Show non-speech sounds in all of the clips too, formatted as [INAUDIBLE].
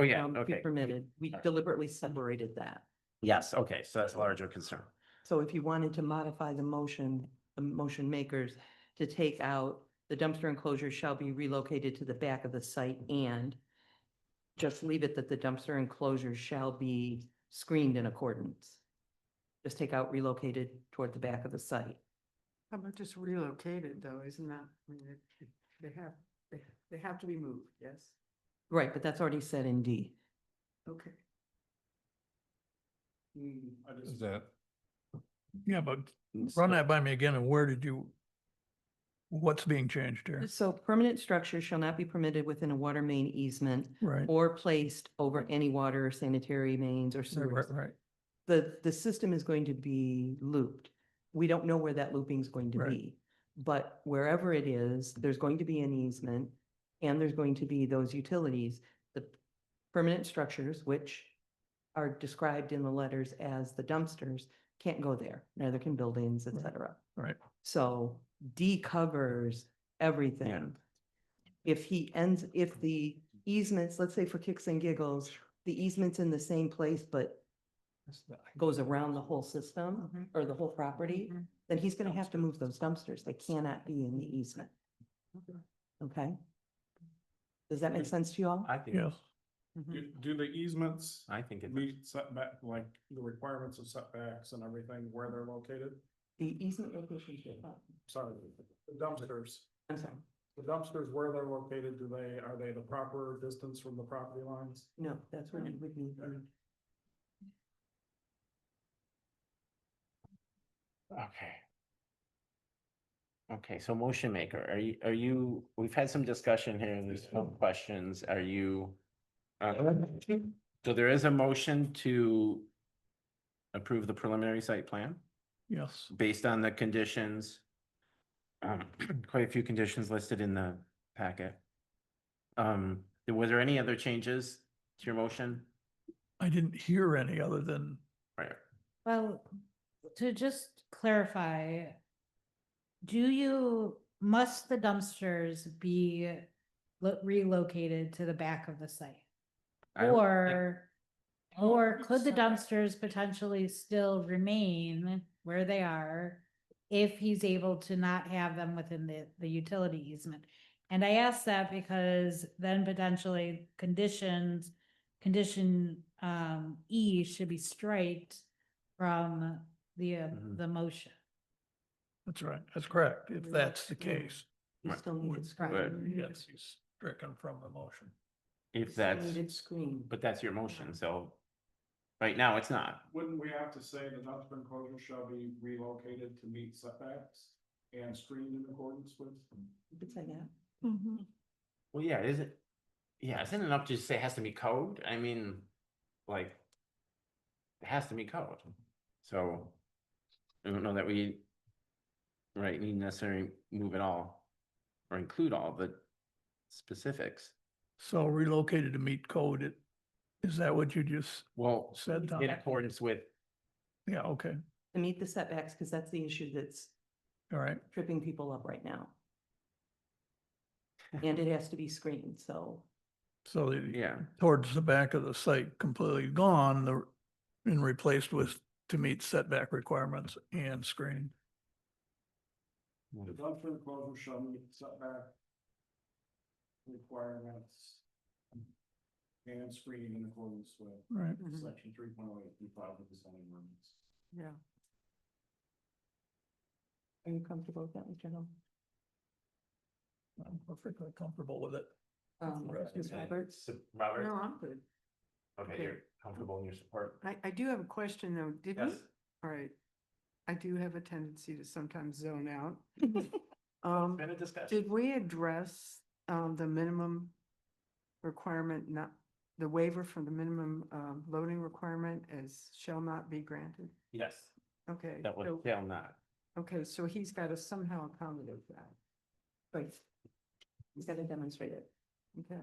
Oh, yeah, um, be okay. permitted. We Alright. deliberately separated that. Yes, okay, so that's a larger concern. So if you wanted to modify the motion, the motion makers to take out the dumpster enclosure shall be relocated to the back of the site and just leave it that the dumpster enclosure shall be screened in accordance. Just take out relocated toward the back of the site. How about just relocated though, isn't that, I mean, it- they have, they- they have to be moved, yes? Right, but that's already said in D. Okay. Is that, Yeah, but Mm, run that by me again, and where did you, what's being changed here? So permanent structures shall not be permitted within a water main easement Right, or placed over any water or sanitary mains or right, sewers. right, right. the, the system is going to be looped. We don't know where that looping is going to Right. be. But wherever it is, there's going to be an easement and there's going to be those utilities, the permanent structures, which are described in the letters as the dumpsters, can't go there, neither can buildings, et Right. cetera. Right. So D covers everything. If he ends, if the easements, let's say for kicks and giggles, the easement's in the same place, but goes around the whole system Mhm. or the whole property, Mhm. then he's gonna have to move those dumpsters. They cannot be in the easement, okay? Does that make sense to you all? I think, Yes, Mhm. Mm-hmm. Do, do the easements I think it, meet setback, like the requirements of setbacks and everything where they're located? The easement location should, oh, Sorry, the dumpsters, I'm sorry, the dumpsters where they're located, do they, are they the proper distance from the property lines? no, that's where we would need. the- okay. Okay, so motion maker, are you, are you, we've had some discussion here, and there's some questions, are you? uh, So there is a motion to approve the preliminary site plan yes, based on the conditions. um, [CLEARS THROAT] Quite a few conditions listed in the packet. Um, was there any other changes to your motion? I didn't hear any other than, Right. Well, to just clarify, do you, must the dumpsters be lo- relocated to the back of the site? I don't think- Or, Oh, or it's could the separate. dumpsters potentially still remain where they are if he's able to not have them within the, the utility easement? And I ask that because then potentially conditions, condition, um, E should be straight from the, uh, Mhm. the motion. that's right, that's correct, if that's the case. You Right. still need it Right. screened. You Yes, he's stricken from the motion. If still that's, need it screened. but that's your motion, so right now it's not. Wouldn't we have to say the dumpster enclosure shall be relocated to meet setbacks and screened in accordance with? You could say that. Well, yeah, is it? Yeah, isn't it enough to just say it has to be code? I mean, like, it has to be code. So I don't know that we, right, need necessarily move it all or include all the specifics. So relocated to meet code, it, is that what you just Well, said, Tom? in accordance with, Yeah, okay, To meet the setbacks, because that's the issue that's all right, tripping people up right [LAUGHS] now. And it has to be screened, so so the- yeah, towards the back of the site completely gone, the, and replaced with to meet setback requirements and screen. The dumpster enclosure shall meet setback requirements and screened in accordance with Right, Mm-hmm. Mhm. section three point oh eight, we filed with the zoning ordinance. Yeah, are you comfortable with that, Mr. Hill? I'm perfectly comfortable with it. Um, Right. Ms. Roberts? So, Robert, no, I'm good. okay, you're comfortable in your support. I, I do have a question though, did we? Mm-hmm. Yes, All right. I do have a tendency to sometimes zone [LAUGHS] out. it's Um, been a discussion. Did we address um the minimum requirement, not the waiver from the minimum um loading requirement as shall not be granted? Yes, Okay. that was, so- shall not. Okay, so he's got to somehow accommodate that. Right. He's got to demonstrate it. Okay.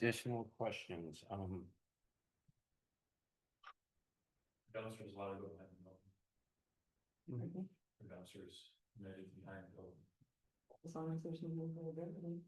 Additional questions, um. Dumpsters allowed to go ahead and Okay. dumpsters behind the building. As long as there's no movement of everything.